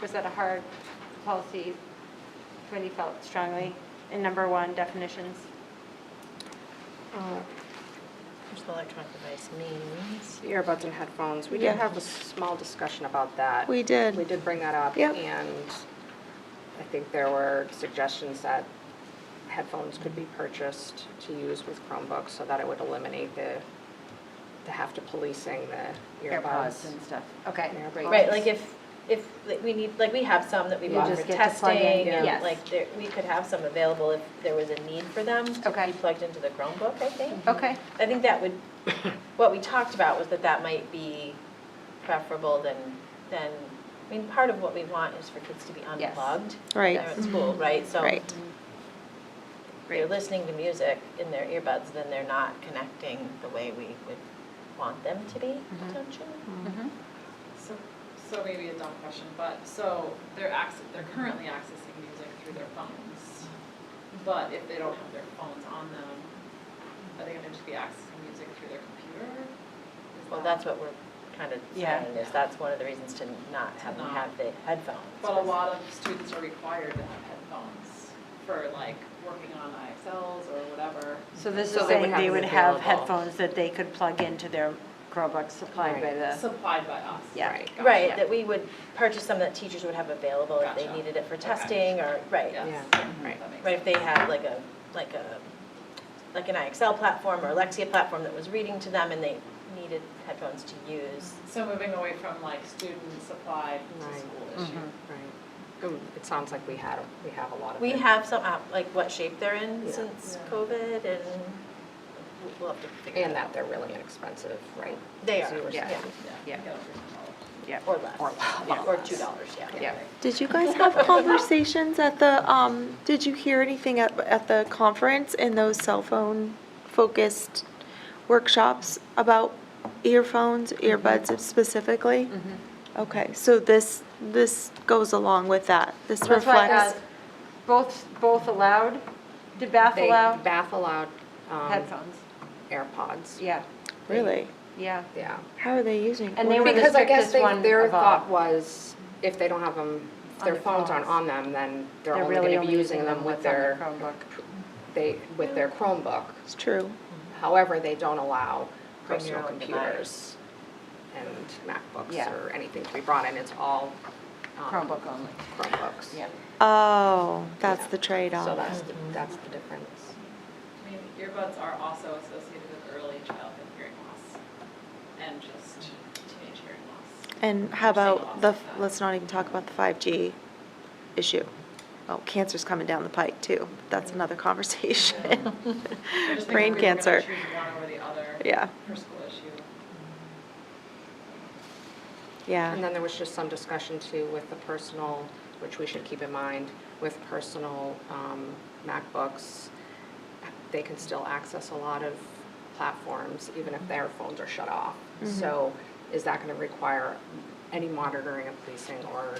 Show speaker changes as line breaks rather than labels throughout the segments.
was that a hard policy committee felt strongly in number one definitions?
Uh,
There's the electronic device means.
Earbuds and headphones, we did
Yeah.
have a small discussion about that.
We did.
We did bring that up.
Yep.
And I think there were suggestions that headphones could be purchased to use with Chromebooks so that it would eliminate the, the have to policing the earbuds.
AirPods and stuff. Okay, great.
AirPods.
Right, like if, if, like we need, like we have some that we
You
bought
just
for
get to plug in,
testing.
yes.
and Like there, we could have some available if there was a need for them to
Okay.
be plugged into the Chromebook, I think.
Okay,
I think that would, what we talked about was that that might be preferable than, than, I mean, part of what we want is for kids to be
Yes.
unplugged.
Right.
They're at school, right? So
Right.
if they're listening to music in their earbuds, then they're not connecting the way we would want them to be
Mm-hmm.
potentially.
So, so maybe a dumb question, but, so they're access, they're currently accessing music through their phones. But if they don't have their phones on them, are they gonna just be accessing music through their computer? Is
Well,
that-
that's what we're kind of
Yeah.
saying, is that's one of the reasons to not have them
not.
have the headphones.
But a lot of students are required to have headphones for like working on IXLs or whatever.
so this
So
is
they would
saying
have
they
it
would have
available.
headphones that they could plug into their Chromebooks supplied by the,
Supplied by us.
Yeah.
Right.
Gotcha.
Right, that we would purchase some that teachers would have available if they
Gotcha.
needed it for
Okay.
testing or, right.
Yes.
Yeah,
Mhm.
right.
That makes
Right, if they had like a, like a, like an IXL platform or Lexia platform that was reading to them and they needed headphones to use.
sense. So moving away from like student supplied to
Right.
school issue.
Right. Um, It sounds like we had, we have a lot of.
We
it.
have some, out- like what shape they're in
Yeah.
since
Yeah.
COVID and we'll- we'll have to figure
And
that out.
that they're really inexpensive, right?
They
As you
are,
were
yeah,
saying.
Yeah.
Get over yourself.
yeah.
or less.
Or
Yeah, Or
less.
two dollars, yeah.
Yeah.
Did you guys have conversations at the, um, did you hear anything at, at the conference in those cell phone focused workshops about earphones,
Mm-hmm.
earbuds specifically? Okay, so this, this goes along with that. This
That's why, uh,
reflects,
Both, both allowed? Did Bath
They-
allow
Bath allowed um,
headphones?
AirPods.
Yeah,
really?
yeah.
Yeah.
How are they using?
And they were the
Because I guess
strictest
they,
one
their
of all.
thought was, if they don't have them, if
On
their
their
phones aren't
phones.
on them, then they're
They're
only
really
gonna be
only
using them with
what's on
their,
Chromebook.
they, with their Chromebook.
It's true.
However, they don't allow
Bring your
personal
own
computers and
Yeah.
MacBooks or anything to be brought in, it's all um,
Chromebook only,
Chromebooks.
yeah.
Oh, that's
Yeah.
the trade-off.
So that's, the- that's the difference.
I mean, earbuds are also associated with early childhood hearing loss and just teenage hearing loss.
And how about
Single.
the, let's not even talk about the 5G issue. Oh, cancer's coming down the pike too. That's another conversation.
I just
Brain
think if we were gonna
cancer.
Choose one over the other.
Yeah,
For school issue.
And
yeah,
then there was just some discussion too with the personal, which we should keep in mind, with personal um, MacBooks, they can still access a lot of platforms, even if their phones are shut off. So is that going to require any monitoring of policing or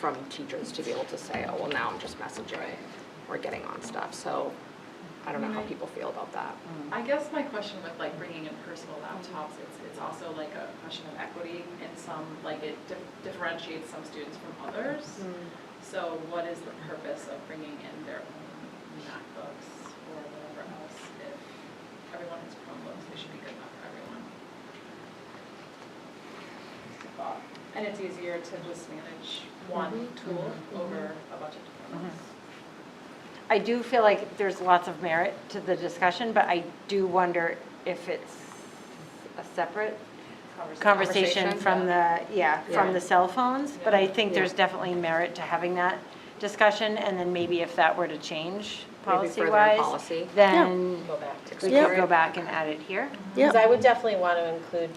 from teachers to be able to say, oh, well, now I'm just messaging or getting on stuff? So I don't know how people feel about that.
I guess my question with like bringing in personal laptops, it's, it's also like a question of equity and some, like it dif- differentiates some students from others. So what is the purpose of bringing in their own MacBooks or whatever else? If everyone has Chromebooks, they should be good enough for everyone. Just a thought. And it's easier to just manage one tool over a bunch of different ones.
I do feel like there's lots of merit to the discussion, but I do wonder if it's a separate conversation
Conversation,
from the, yeah,
Yeah.
from the cell phones. But I
Yeah.
think there's definitely merit to having that discussion, and then maybe if that were to change
Maybe further in
policy-wise,
policy.
then
Go back to.
we
Yeah.
could go back and add it here.
yeah.
Because I would definitely want to include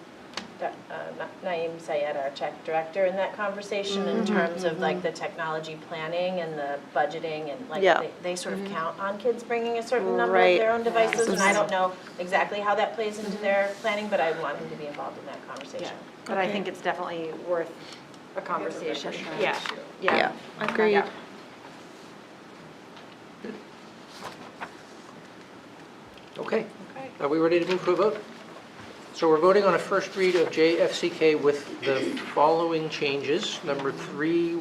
Doc- uh, Na- Naeem Sayed, our tech director, in that conversation in
Mm-hmm.
terms of like the technology planning and the budgeting and like,
Yeah.
they- they sort of count on kids bringing a certain number of
Right.
their own devices. And I
Yes.
don't know exactly how that plays into their planning, but I want him to be involved in that conversation.
But I think it's definitely worth a conversation. Yeah, yeah.
Yeah, agreed.
Yeah.
Okay. Are we ready to move to a vote? So we're voting on a first read of JFCK with the following changes. Number three